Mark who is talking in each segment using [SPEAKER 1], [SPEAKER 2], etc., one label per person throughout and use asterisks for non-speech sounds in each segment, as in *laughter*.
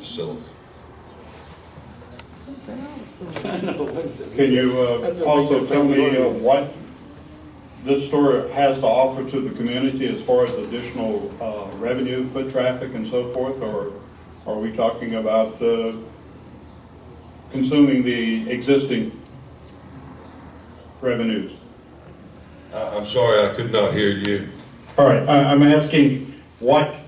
[SPEAKER 1] facility.
[SPEAKER 2] Can you uh, also tell me uh, what this store has to offer to the community as far as additional uh, revenue, foot traffic and so forth? Or are we talking about uh, consuming the existing revenues?
[SPEAKER 1] I, I'm sorry, I could not hear you.
[SPEAKER 2] All right, I- I'm asking, what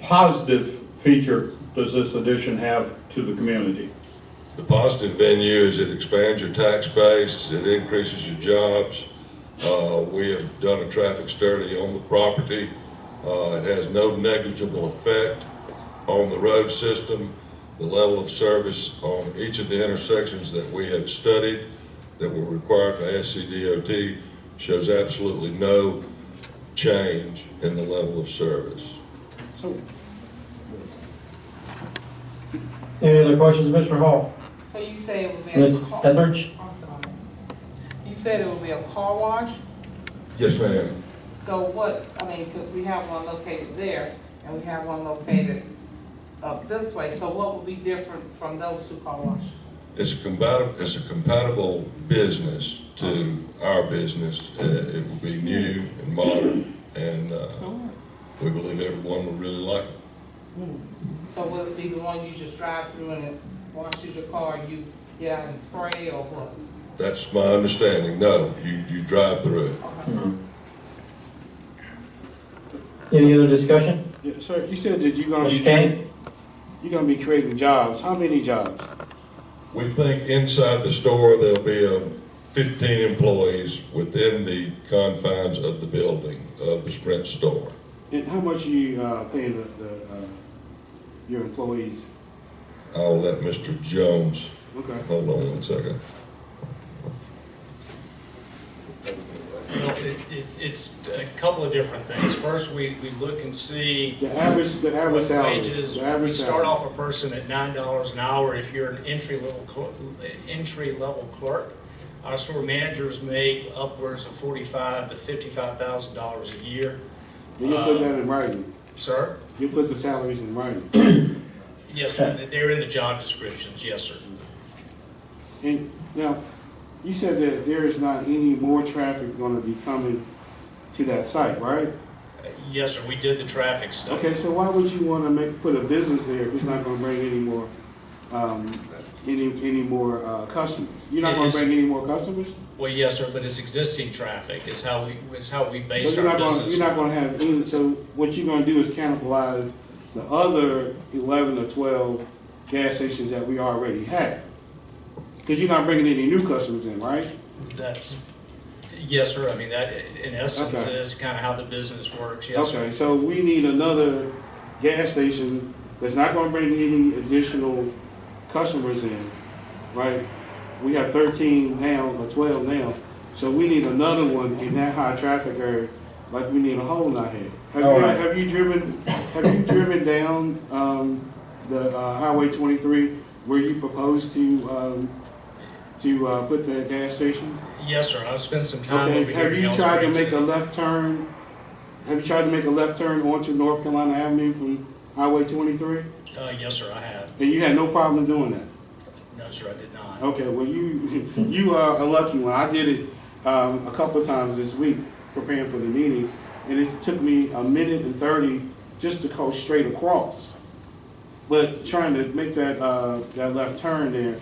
[SPEAKER 2] positive feature does this addition have to the community?
[SPEAKER 1] The positive venue is it expands your tax base, it increases your jobs. Uh, we have done a traffic study on the property. Uh, it has no negligible effect on the road system, the level of service on each of the intersections that we have studied that were required by SCDOT shows absolutely no change in the level of service.
[SPEAKER 3] Any other questions, Mr. Hall?
[SPEAKER 4] So you say it would be a
[SPEAKER 3] Ms.
[SPEAKER 4] car?
[SPEAKER 3] Etheridge?
[SPEAKER 4] I'm sorry. You said it would be a car wash,
[SPEAKER 1] Yes, ma'am.
[SPEAKER 4] so what, I mean, because we have one located there and we have one located up this way, so what would be different from those two car washes?
[SPEAKER 1] It's a compatible, it's a compatible business to our business. Uh, It will be new and modern, and uh, we believe everyone will really like it.
[SPEAKER 4] So would it be the one you just drive through and it washes your car, you get out and spray or what?
[SPEAKER 1] That's my understanding. No, you, you drive through it.
[SPEAKER 3] Any other discussion?
[SPEAKER 5] Yeah, Sir, you said that you're gonna
[SPEAKER 3] Mr.
[SPEAKER 5] be,
[SPEAKER 3] Kane?
[SPEAKER 5] you're gonna be creating jobs. How many jobs?
[SPEAKER 1] We think inside the store, there'll be um, 15 employees within the confines of the building of the Sprint store.
[SPEAKER 5] And how much are you uh, paying the, the, uh, your employees?
[SPEAKER 1] I'll let Mr. Jones,
[SPEAKER 5] Okay.
[SPEAKER 1] hold on one second.
[SPEAKER 6] Well, it- it- It's a couple of different things. First, we, we look and see
[SPEAKER 5] The average, the average
[SPEAKER 6] what
[SPEAKER 5] salary?
[SPEAKER 6] wages.
[SPEAKER 5] The
[SPEAKER 6] We
[SPEAKER 5] average
[SPEAKER 6] start
[SPEAKER 5] salary.
[SPEAKER 6] off a person at nine dollars an hour if you're an entry level, clerk- entry level clerk. Our store managers make upwards of forty-five to fifty-five thousand dollars a year.
[SPEAKER 5] And you
[SPEAKER 6] uh,
[SPEAKER 5] put that in writing.
[SPEAKER 6] Sir?
[SPEAKER 5] You put the salaries in writing.
[SPEAKER 6] Yes, sir. They're in the job descriptions, yes, sir.
[SPEAKER 5] And now, you said that there is not any more traffic gonna be coming to that site, right?
[SPEAKER 6] Yes, sir, we did the traffic study.
[SPEAKER 5] Okay, so why would you wanna make, put a business there if it's not gonna bring any more, um, any, any more, uh, customers? You're not gonna
[SPEAKER 6] It's-
[SPEAKER 5] bring any more customers?
[SPEAKER 6] Well, yes, sir, but it's existing traffic. It's how we, it's how we
[SPEAKER 5] So
[SPEAKER 6] based
[SPEAKER 5] you're
[SPEAKER 6] our
[SPEAKER 5] not gonna,
[SPEAKER 6] business.
[SPEAKER 5] you're not gonna have any, so what you're gonna do is cannibalize the other eleven or twelve gas stations that we already have. Cause you're not bringing any new customers in, right?
[SPEAKER 6] That's, yes, sir, I mean, that, in essence,
[SPEAKER 5] Okay.
[SPEAKER 6] is kind of how the business works, yes, sir.
[SPEAKER 5] Okay, so we need another gas station that's not gonna bring any additional customers in, right? We have thirteen now, or twelve now, so we need another one in that high traffic area, like we need a hole out here. Have
[SPEAKER 3] All
[SPEAKER 5] you,
[SPEAKER 3] right.
[SPEAKER 5] have you driven, have you driven down, um, the, uh, Highway twenty-three where you propose to, um, to, uh, put the gas station?
[SPEAKER 6] Yes, sir, I've spent some time over
[SPEAKER 5] Okay,
[SPEAKER 6] here
[SPEAKER 5] have
[SPEAKER 6] in
[SPEAKER 5] you
[SPEAKER 6] Yells
[SPEAKER 5] tried to
[SPEAKER 6] Creek.
[SPEAKER 5] make a left turn? Have you tried to make a left turn onto North Carolina Avenue from Highway twenty-three?
[SPEAKER 6] Uh, yes, sir, I have.
[SPEAKER 5] And you had no problem doing that?
[SPEAKER 6] No, sir, I did not.
[SPEAKER 5] Okay, well, you, *laughs* you are a lucky one. I did it, um, a couple of times this week, preparing for the meeting, and it took me a minute and thirty just to go straight across. But trying to make that, uh, that left turn there,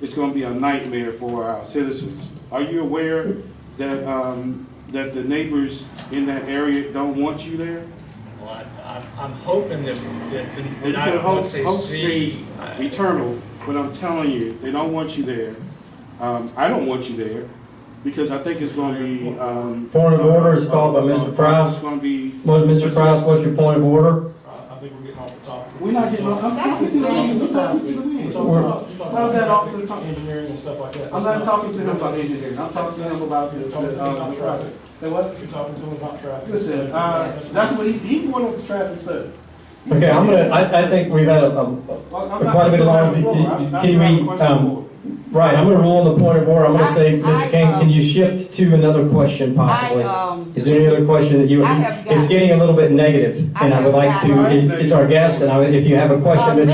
[SPEAKER 5] it's gonna be a nightmare for our citizens. Are you aware that, um, that the neighbors in that area don't want you there?
[SPEAKER 6] Well, I, I'm, I'm hoping that, that, that-
[SPEAKER 5] Well,
[SPEAKER 6] that
[SPEAKER 5] you
[SPEAKER 6] I,
[SPEAKER 5] put Hope-
[SPEAKER 6] would say
[SPEAKER 5] Hope Springs
[SPEAKER 6] see. I-
[SPEAKER 5] Eternal, but I'm telling you, they don't want you there. Um, I don't want you there, because I think it's gonna be, um.
[SPEAKER 3] Point of order is called by Mr. Price.
[SPEAKER 5] It's gonna be,
[SPEAKER 3] Well, Mr. Price, what's your point of order?
[SPEAKER 7] I think we're getting off the topic.
[SPEAKER 5] we're not getting, I'm talking to the man, I'm talking to the man. How's that off the top?
[SPEAKER 7] Engineering and stuff like that.
[SPEAKER 5] I'm not talking to him about engineering, I'm talking to him about the, the, uh, the traffic. Say what?
[SPEAKER 7] You're talking to him about traffic.
[SPEAKER 5] Listen, uh, that's what he, he brought up the traffic study.
[SPEAKER 3] Okay, I'm gonna, I, I think we've had a, a-
[SPEAKER 5] Well,
[SPEAKER 3] a-
[SPEAKER 5] I'm not-
[SPEAKER 3] quite a bit long,
[SPEAKER 5] I'm not-
[SPEAKER 3] can
[SPEAKER 5] I'm
[SPEAKER 3] we,
[SPEAKER 5] not-
[SPEAKER 3] um, right, I'm gonna rule on the point of order, I'm gonna say,
[SPEAKER 8] I- I,
[SPEAKER 3] Mr. Kane,
[SPEAKER 8] um,
[SPEAKER 3] can you shift to another question possibly?
[SPEAKER 8] I, um,
[SPEAKER 3] Is there any other question that you,
[SPEAKER 8] I have
[SPEAKER 3] it's
[SPEAKER 8] got-
[SPEAKER 3] getting a little bit negative,
[SPEAKER 8] I
[SPEAKER 3] and I would
[SPEAKER 8] have
[SPEAKER 3] like
[SPEAKER 8] got-
[SPEAKER 3] to, it's, it's our guest, and I, would- if you have a question,
[SPEAKER 8] Uh,
[SPEAKER 3] Mr.